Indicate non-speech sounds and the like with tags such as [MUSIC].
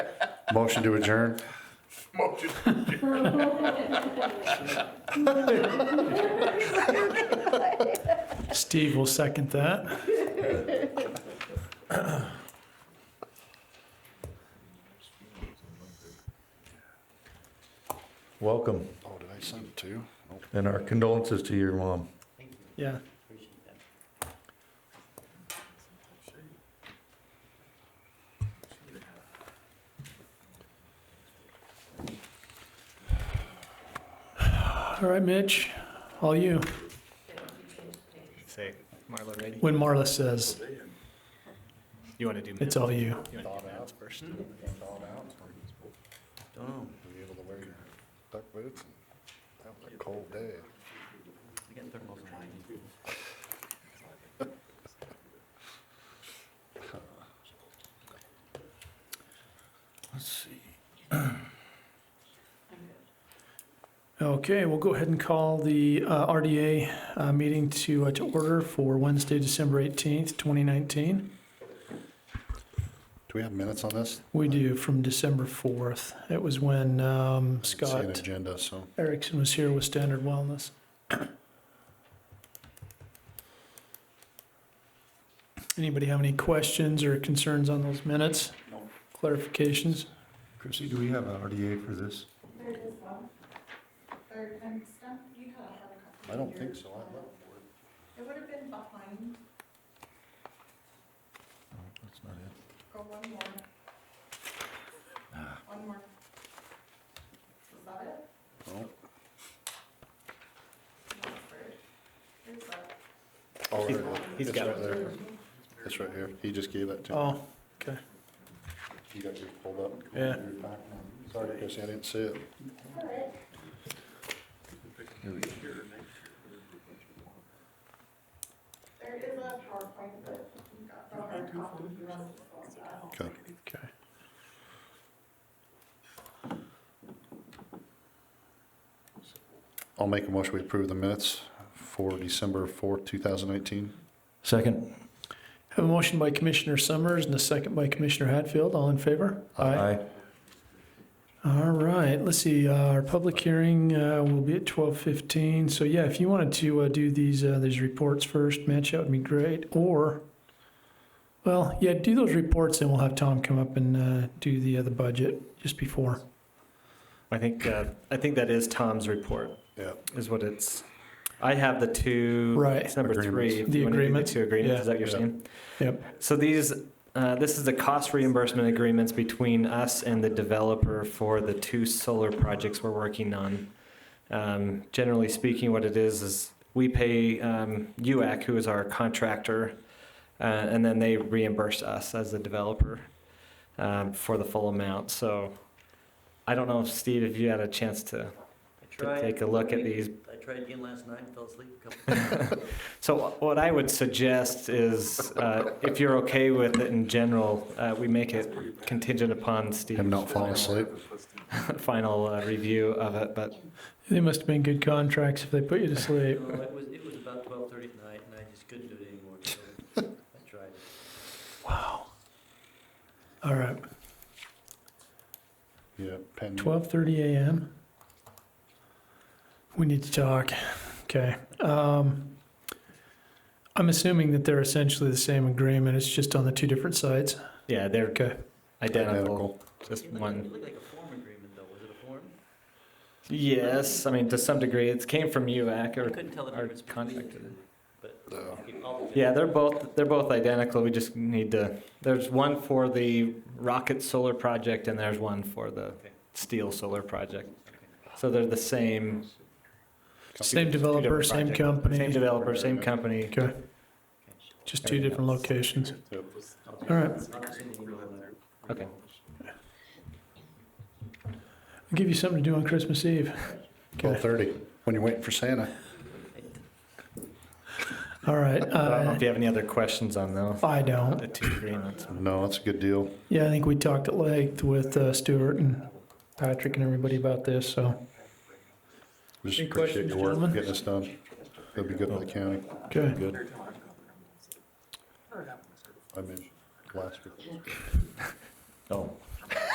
Motion to adjourn? Steve will second that. Welcome, Oh, did I send it to you? Nope. and our condolences to your mom. Yeah. All right, Mitch, all you, Say, Marla, ready? when Marla says, You want to do minutes? it's all you. You want to do minutes first? Thawed out. Don't know. Were you able to wear your duck boots? That was a cold day. I got thermals in mine. Okay, we'll go ahead and call the uh, RDA uh, meeting to, uh, to order for Wednesday, December 18th, 2019. Do we have minutes on this? We do, from December 4th. It was when um, I didn't see an Scott agenda, so. Erickson was here with Standard Wellness. [CLEARS THROAT] Anybody have any questions or concerns on those minutes? No. Clarifications? Chrissy, do we have an RDA for this? um, I don't think so. I love it. It would have been behind No, that's not it. or Oh, one more. One more. Is that it? Nope. No, it's third. There's that. Oh, right there. He's It's got right there. It's right here. He just gave that to me. Oh, You got yours pulled up. Yeah. Sorry, Chrissy, I didn't see it. There is a PowerPoint that you got from our copy. if you want to follow that. Okay. okay. I'll make a motion. We approve the minutes for December fourth, two thousand eighteen. Second? Have a motion by Commissioner Summers and a second by Commissioner Hatfield. All in favor? All right, let's see, uh, our public hearing uh, will be at 12:15. So yeah, if you wanted to uh, do these, uh, these reports first, Mitch, that would be great. Or, well, yeah, do those reports, and we'll have Tom come up and uh, do the other budget just before. I think, uh, I think that is Tom's report, Yeah. is what it's, I have the two. Right. It's number Agreements. three. if The you wanna do agreements. Two agreements, Yeah. is that what you're Yeah. saying? Yep. So these, uh, this is the cost reimbursement agreements between us and the developer for the two solar projects we're working on. Um, Generally speaking, what it is, is we pay um, UAC, who is our contractor, uh, and then they reimburse us as the developer um, for the full amount. So I don't know, Steve, if you had a chance to I to tried. take a look at I- these. I tried again last night, fell asleep a couple So what I would suggest is, uh, if you're okay with it in general, uh, we make it contingent upon Him Steve's not falling asleep. [LAUGHS] final uh, review of it, but They must have been good contracts if they put you to sleep. No, it was, it was about twelve thirty at night, and I just couldn't do it anymore, so I tried it. All right, [LAUGHS] Yeah. Pen. 12:30 a.m. We need to talk. Okay. Um, I'm assuming that they're essentially the same agreement, it's just on the two different sites. yeah, they're Okay. Identical. identical. Just It looked like- It one. looked like a form agreement, though, was it a form? Yes, I mean, to some degree, it came from UAC I or, couldn't tell the our difference between the contractor two, did. but. Yeah. it all looked yeah, good. they're both, they're both identical. We just need to, there's one for the rocket solar project and there's one for the Okay. steel solar project. Okay. So they're the same Same Two different developer, same projects. company. Same developer, same company. Okay, just two different locations. Yep. All right, I'll I'll send you an email later. Okay. give you something to do on Christmas Eve. [LAUGHS] Twelve thirty, when you're waiting for Santa. All right, I don't know uh, if you have any other questions on those, I don't. the two agreements. No, that's a good deal. Yeah, I think we talked at length with uh, Stuart and Patrick and everybody about this, so, We Just Any appreciate questions, your work gentlemen? getting this done. It'll be good for the county. okay. Good. I mean, last week. Oh,